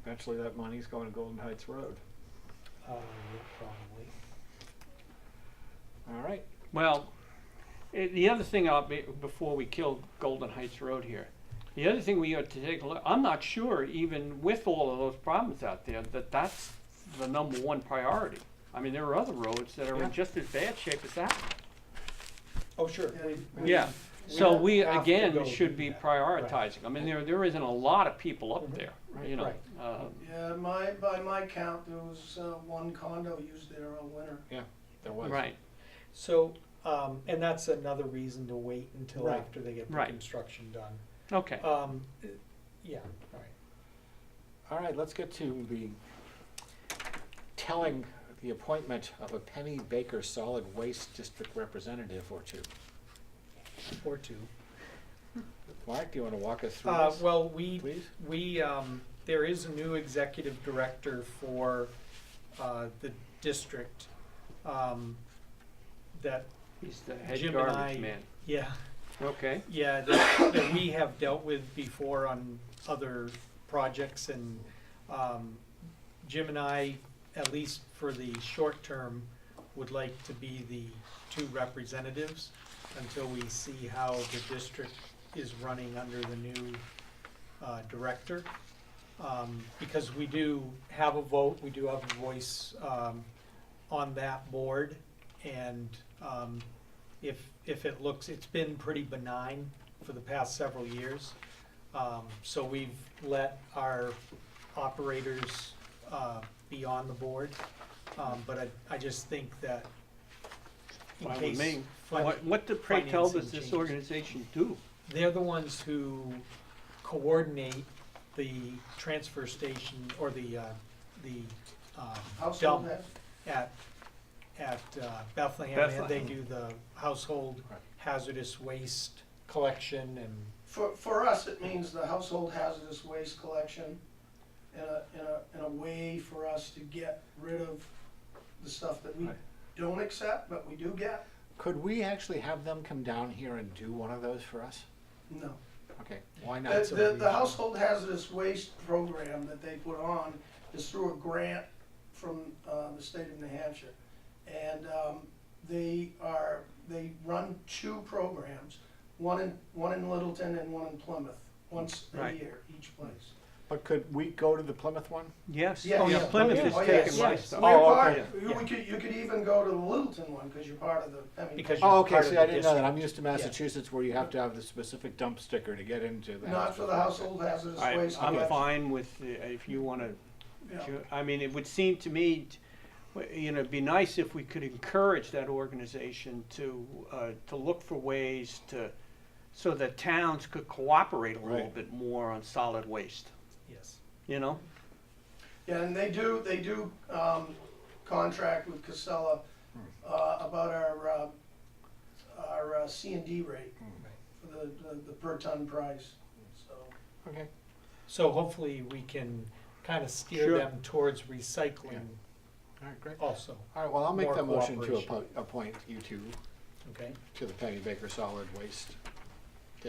eventually that money's going to Golden Heights Road. Uh, yeah, probably. All right, Well, eh, the other thing I'll be, before we kill Golden Heights Road here, the other thing we ought to take a look, I'm not sure even with all of those problems out there, that that's the number one priority. I mean, there are other roads that are Yeah. in just as bad shape as that. Oh, sure. Yeah. Yeah, We so don't we, have to again, go should do be that. prioritizing. I mean, there, there isn't a lot of people up Mhm. there, Right, you know. right. um, Yeah, my, by my count, there was uh, one condo used there all winter. there was. Right, So, um, and that's another reason to wait until Right. after they get the Right. construction done. okay. Um, eh, yeah, all right. All right, let's get to the telling the appointment of a Penny Baker Solid Waste District Representative or two. Or two. Mark, do you want to walk us through Uh, this, well, we please? We, um, there is a new executive director for, uh, the district, um, that, He's the head Jim and I- garbage man. yeah, Okay, yeah, that, that we have dealt with before on other projects and, um, Jim and I, at least for the short term, would like to be the two representatives until we see how the district is running under the new, uh, director. Um, because we do have a vote, we do have a voice, um, on that board. And, um, if, if it looks, it's been pretty benign for the past several years. Um, so we've let our operators, uh, be on the board. Um, but I, I just think that in fine with case. me. fin- What, what the pray tell does financing this changes. organization do? They're the ones who coordinate the transfer station or the, uh, the, um, Household dump has, at, at uh, Bethlehem. And they Bethlehem. do the household Right. hazardous waste collection and, for, for us, it means the household hazardous waste collection and a, and a, and a way for us to get rid of the stuff that we Right. don't accept, but we do get. Could we actually have them come down here and do one of those for us? No. Okay, why The, not? so the, we- the household hazardous waste program that they put on is through a grant from, uh, the state of New Hampshire. And, um, they are, they run two programs, one in, one in Littleton and one in Plymouth, once a Right. year, each place. But could we go to the Plymouth one? Yes, Yeah, oh, yeah, yeah. Plymouth Oh, is yeah. Oh, taking yes, my yes. stuff. Well, you're Oh, part- okay. you- Yeah. We could, you could even go to the Littleton one, cause you're part of the, I mean. because Oh, you're okay, part of see, the I didn't know that. district. I'm used to Massachusetts where you have to have the specific dump sticker to get into the. Not for the household hazardous Oh, I, waste. I'm collection. fine with, uh, if you wanna, Yeah. ju- I mean, it would seem to me, t- w- you know, it'd be nice if we could encourage that organization to, uh, to look for ways to, so that towns could cooperate a little Right. bit more on solid waste, Yes. you know? Yeah, and they do, they do, um, contract with Casella, uh, about our, uh, our uh, C and D rate for the, the, the per ton price, so. Okay, So hopefully we can kind of steer Sure. them towards recycling all right, great. also, All right, well, I'll make More the motion to cooperation. appo- appoint you two okay? to the Penny Baker Solid Waste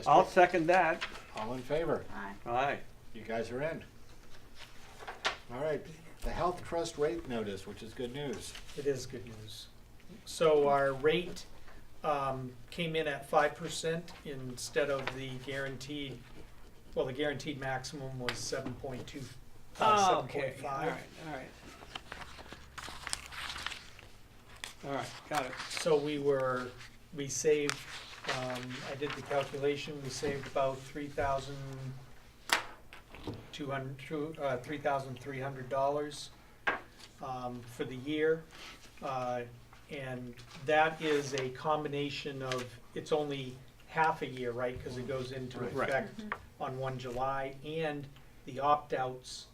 I'll District. second that, All in favor? Aye. aye. You guys are in. All right, the Health Trust rate notice, which is good news. It is good news. So our rate um, came in at five percent instead of the guaranteed, well, the guaranteed maximum was seven point two, uh, seven point Oh, All five. right, all right. All right, got it. So we were, we saved, um, I did the calculation, we saved about three thousand two hundred, uh, three thousand three hundred dollars, um, for the year. Uh, and that is a combination of, it's only half a year, right, cause it goes into Right. effect on one July, and the opt-outs,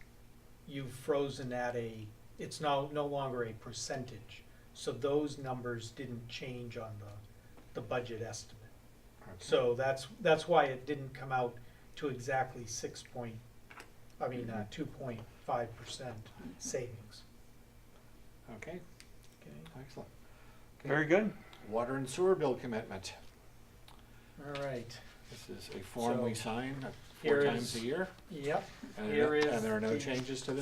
you've frozen at a, it's now no longer a percentage. So those numbers didn't change on the, the budget estimate. So that's, that's why it didn't come out to exactly six point, I mean, uh, two point five percent savings. Okay, Okay, excellent. Okay. Very good. Water and sewer bill commitment. all right, This is a form we So, sign uh, four here times a is- year. yep. and- here is And there are no the- changes to this?